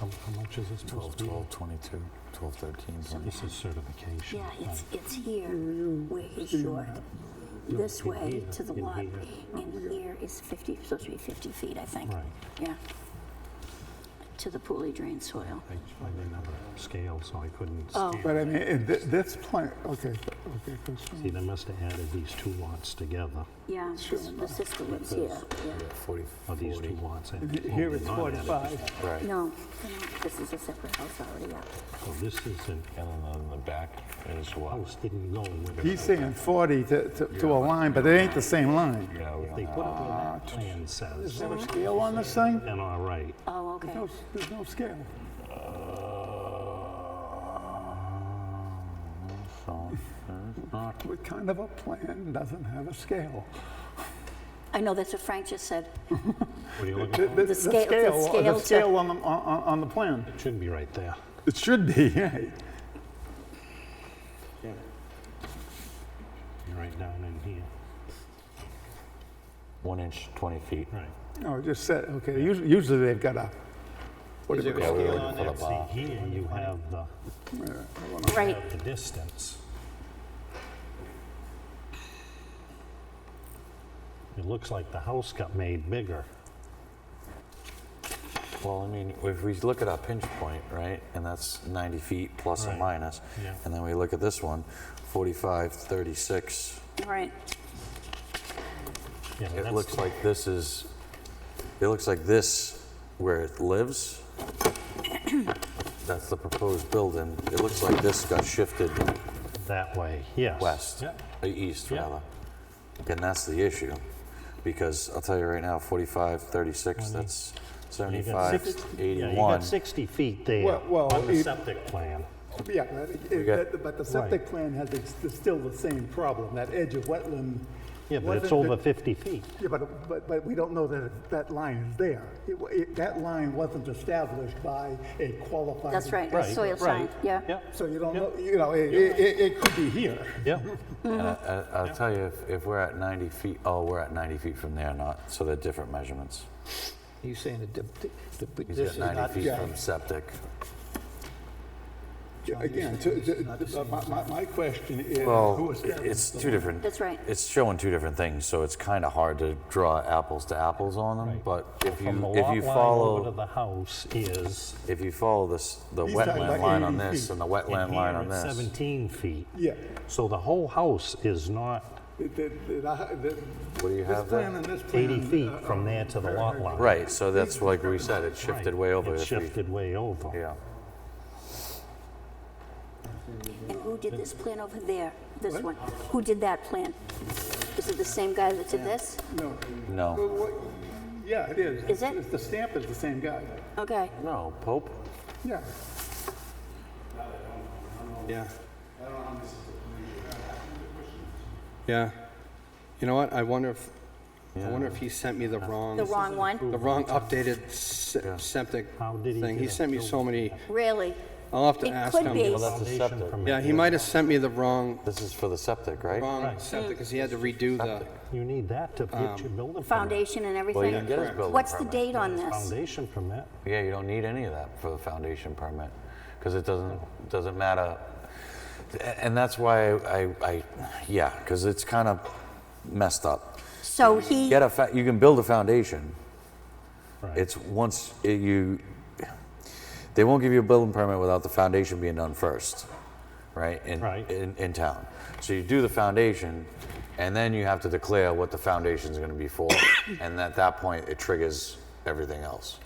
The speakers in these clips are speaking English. How, how much is it 12, supposed to be? 12, 22, 12, 13, So This is certification. Yeah, it's, right? it's here where he's short. No, This in way here, to the in lot, here. and here is 50, supposed to be 50 feet, I think. Right. Yeah. To the poorly drained soil. I I didn't have a scale, so I couldn't Oh. scan. But uh, I mean, it- thi- this plan, okay, okay, See, question. they must have added these two lots together, Yeah, this this is the ones here, yeah. 40, or these two lots. and- oh, Here they're it's not added. 45. Right. No, no, this is a separate house already, yeah. So this is, an And then in the back is what? house didn't go with it. He's saying 40 to, to- to a line, but it ain't the same line. Uh, Yeah, we don't They have- put it where that plan says, there a scale on this thing? and all right. Oh, okay. No, s- there's no scale. So, there's not, What kind of a plan doesn't have a scale? I know, that's what Frank just said. What are you looking The- for? the- The scale- the scale, scale the to- scale on the, on- on on the plan. It should be right there. It should be, yeah. You're right down in here. one inch, 20 feet. Right. No, it just said, okay, usually, usually they've got a, what do you Yeah, call we it? were looking for the bar. See, here you have the, Right, the distance. It looks like the house got made bigger. Well, I mean, if we look at our pinch point, right, and that's 90 feet plus or Right. minus, Yeah. and then we look at this one, 45, 36, right. Yeah, it that's- looks like this is, it looks like this where it lives. That's the proposed building. It looks like this got shifted That way, yes. west, Yep. uh, east Yeah. rather. And that's the issue, because I'll tell you right now, 45, 36, that's You got 75, six- Yeah, you 81. got 60 feet there Well- well, on the it- septic plan. Yeah, but it- it- got- but- but the septic plan has ex- is still the same problem, that edge of wetland. Yeah, but it's wasn't over the- 50 feet. Yeah, but, but, but we don't know that it- that line is there. It wa- it- That line wasn't established by a qualified. That's right, Right, soil sign, right. yeah. Yep, So you don't know, you know, it, it, it- it could be here. yep. And I, I, Uh, I'll tell you, if, if we're at 90 feet, oh, we're at 90 feet from there, not, so they're different measurements. He's saying that the- the- but He's this at is not 90 feet yeah. from septic. Again, to- to- uh, my, my- my question is. who Well, established it's the two different. That's right. It's showing two different things, so it's kind of hard to draw apples to apples on them, but if From the you, if lot line over you to follow, the house is, if you follow this, the He's talking wetland about line on 80 this feet. and the in wetland here line on it's this. 17 feet. Yeah. So the whole house is not The- the- the- the- What do you This have plan there? and this plan. 80 uh, feet from there to the lot line. Right, so that's like we said, it shifted Right. way over. It if we- shifted way over. Yeah. And who did this plan over there, this one? Who did that plan? Is it the same guy that did this? No. Well, No, what- Yeah, it is. Is it? It's- The stamp is the same guy. Okay, no, Pope? Yeah. Yeah. Yeah. You know what? I wonder if, I wonder if he sent me the wrong. the wrong one? The wrong updated se- septic How did he thing. He get a sent me so many, Really? I'll have to It ask could be. him. Well, that's the Foundation septic. from Yeah, he might have sent me the wrong, This is for the septic, right? wrong septic, because he had to redo the, You need that to get your building permit. Foundation and Well, you can everything? get his building What's the permit. date on this? Foundation permit. Yeah, you don't need any of that for the foundation permit, because it doesn't, doesn't matter. And that's why I, I, yeah, because it's kind of messed up. So he, Get a, fa- you can build a foundation. Right. It's once it- you, they won't give you a building permit without the foundation being done first, right? In, Right. In, in town. So you do the foundation, and then you have to declare what the foundation's gonna be for. And at that point, it triggers everything else.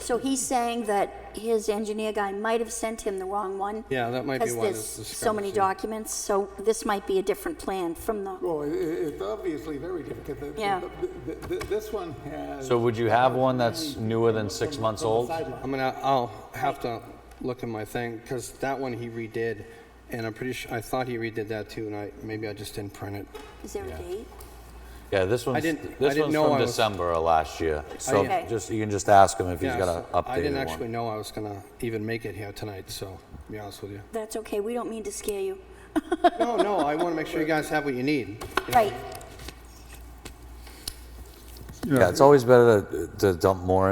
so he's saying that his engineer guy might have sent him the wrong one? Yeah, that might be why Because there's there's so many discrepancy. documents, so this might be a different plan from the, Well, it, it's obviously very different. 'cause the- Yeah. the- the- the- This one has. So would you have one that's newer than six months old? I'm gonna, I'll have to look at my thing, because that one he redid, and I'm pretty sure, I thought he redid that too, and I, maybe I just didn't print it. is there a date? Yeah, this one's, didn't- I this didn't one's know from I was- December of last year. So Okay. just, you can just ask him if he's Yeah, got an so I didn't updated actually one. know I was gonna even make it here tonight, so, to be honest with you. That's okay, we don't mean to scare you. No, no, I want to make sure you guys have what you need. Right. Yeah, it's always better to, to dump more